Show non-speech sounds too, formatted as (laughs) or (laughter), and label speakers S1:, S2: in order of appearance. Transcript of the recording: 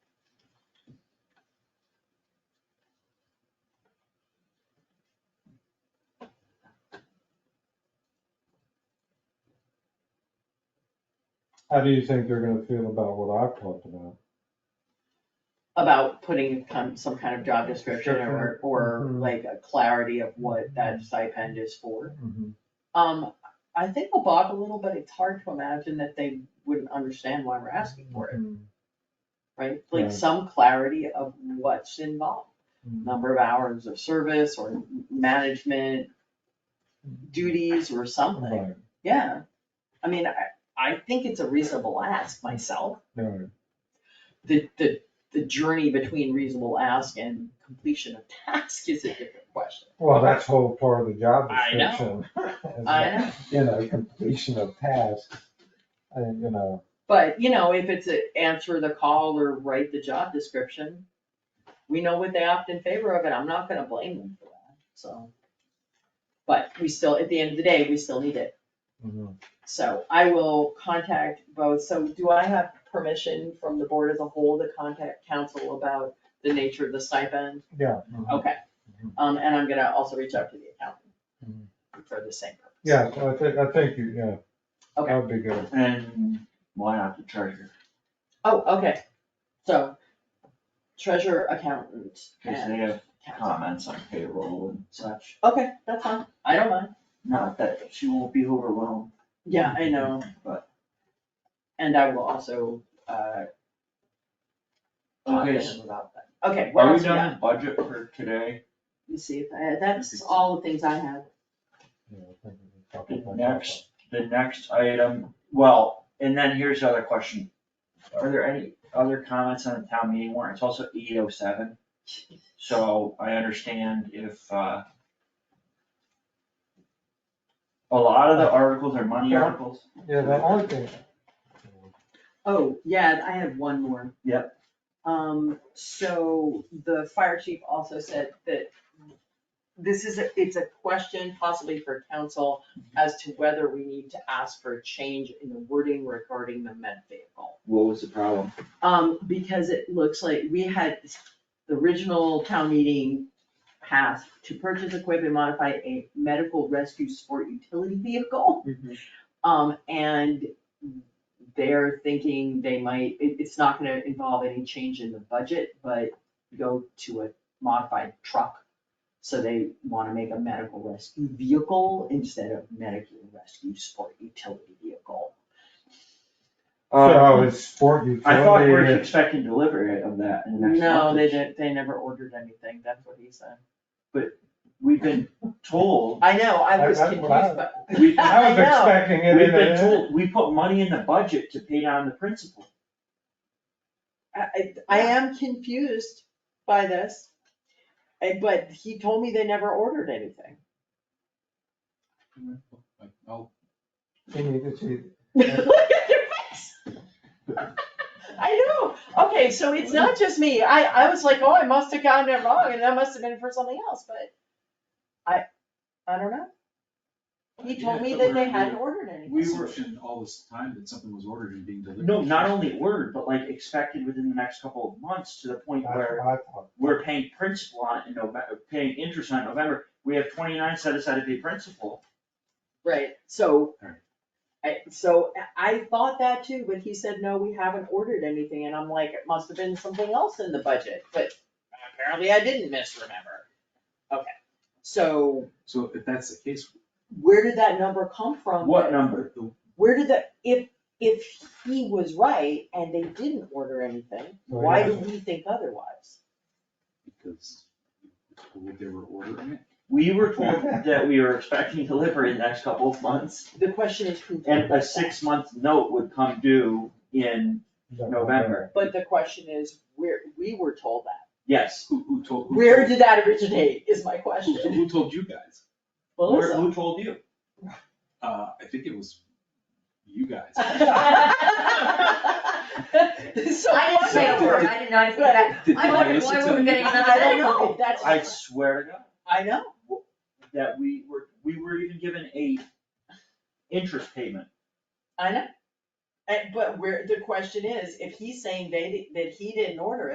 S1: How do you think they're gonna feel about what I've talked about?
S2: about putting kind- some kind of job description or, or
S1: Mhm.
S2: like a clarity of what that stipend is for. Um, I think we'll bog a little, but it's hard to imagine that they wouldn't understand why we're asking for it, right? Like
S1: Right.
S2: some clarity of what's involved, number of hours of service or management duties or something,
S1: Right,
S2: yeah. I mean, I, I think it's a reasonable ask myself.
S1: right.
S2: the, the, the journey between reasonable ask and completion of (laughs) task is a different question.
S1: Well, that's whole part of the job
S2: (laughs) I know.
S1: description. is
S2: I know,
S1: the, You know, completion of tasks, and, you know,
S2: but you know, if it's a answer the call or write the job description, we know what they opt in favor of, and I'm not gonna blame them for that, so. But we still, at the end of the day, we still need it, Mm-hmm.
S1: mhm.
S2: so I will contact both, so do I have permission from the board as a whole to contact council about the nature of the stipend?
S1: yeah. mhm.
S2: Okay,
S1: Mhm.
S2: um, and I'm gonna also reach out to the
S1: Mhm.
S2: accountant for the same purpose.
S1: Yeah, so I think, I think, you yeah.
S2: Okay.
S1: That'd be good.
S3: And why not the treasurer?
S2: Oh, okay, so treasurer, accountant,
S3: Cause
S2: and
S3: they have
S2: accountant.
S3: comments on payroll and such.
S2: Okay, that's fine, I don't mind,
S3: Not that she won't be overwhelmed,
S2: yeah, I know,
S3: but.
S2: and I will also, uh, talk to
S3: Okay,
S2: him about that. Okay, what
S3: are we
S2: else we got?
S3: done with budget for today?
S2: Let me see if, I- that's all the things I have,
S1: Yeah, I think we can talk
S3: The
S1: about that.
S3: next, the next item, well, and then here's the other question. Are there any other comments on the town meeting warrant? It's also eight oh seven. So I understand if, uh. A lot of the articles are money articles.
S1: Yeah, the only thing,
S3: Uh,
S2: oh, yeah, I have one more.
S3: Yep.
S2: Um, so the fire chief also said that this is, a it's a question possibly for council as to whether we need to ask for a change in the wording regarding the med vehicle.
S3: What was the problem?
S2: Um, because it looks like we had the original town meeting passed to purchase, equip, and modify a medical rescue sport utility vehicle.
S3: Mhm.
S2: Um, and they're thinking they might, it, it's not gonna involve any change in the budget, but go to a modified truck. So they wanna make a medical rescue vehicle instead of medical rescue sport utility vehicle.
S3: Um,
S1: so it's sport utility.
S3: I thought we were expecting delivery of that in the next
S2: No,
S3: month.
S2: they didn't, they never ordered anything, that's what he said.
S3: We've been told,
S2: I know, I
S1: I-
S2: was
S1: I-
S2: confused,
S1: well,
S2: but.
S3: we,
S1: I was
S2: (laughs) I know.
S1: expecting it in
S3: we've been
S1: a-
S3: told, we put money in the budget to pay down the principal.
S2: I, I- I am confused by this, eh, but he told me they never ordered anything. (laughs)
S1: Can you just see?
S2: Look at your face. (laughs) I know, okay, so it's not just me, I, I was like, oh, I must have gotten it wrong, and that must have been for something else, but I, I don't know. He told me
S4: Yeah, but
S2: that
S4: we're-
S2: they hadn't ordered anything.
S4: We were in all this time that something was ordered and being delivered.
S3: No, not only ordered, but like expected within the next couple of months to the point
S1: I-
S3: where
S1: I thought-
S3: we're paying principal on it in November, paying interest on it in November. We have twenty-nine set aside to pay principal.
S2: Right, so,
S3: Alright.
S2: I, so I thought that too, but he said, no, we haven't ordered anything, and I'm like, it must have been something else in the budget, but apparently I didn't misremember. Okay, so
S4: So if that's the case,
S2: where did that number come from?
S3: What number?
S4: the-
S2: Where did that, if, if he was right and they didn't order
S3: Oh,
S2: anything,
S1: Well,
S2: why
S1: yeah.
S2: do we think otherwise?
S4: because they were ordering it.
S3: We were told that we were expecting delivery in the next couple of months.
S2: The question is who.
S3: And a six-month note would come due in, November.
S2: But the question is, where, we were told that,
S3: yes,
S4: Who, who told? who
S2: where
S4: told-
S2: did that originate, is my
S4: Who,
S2: question.
S4: who told you guys?
S3: where,
S2: Melissa.
S3: who told you?
S4: Uh, I think it was you
S5: (laughs)
S4: guys.
S2: So I
S5: I didn't say a word, I did not even that.
S4: Did
S5: I
S4: you
S5: wondered
S4: listen
S5: why
S4: to
S5: we were
S4: me?
S5: getting another
S2: I don't know,
S5: medical.
S2: that's,
S3: I swear to God.
S2: I know,
S3: that we were, we were even given a interest payment.
S2: I know. And, but where, the question is, if he's saying they, that he didn't order it.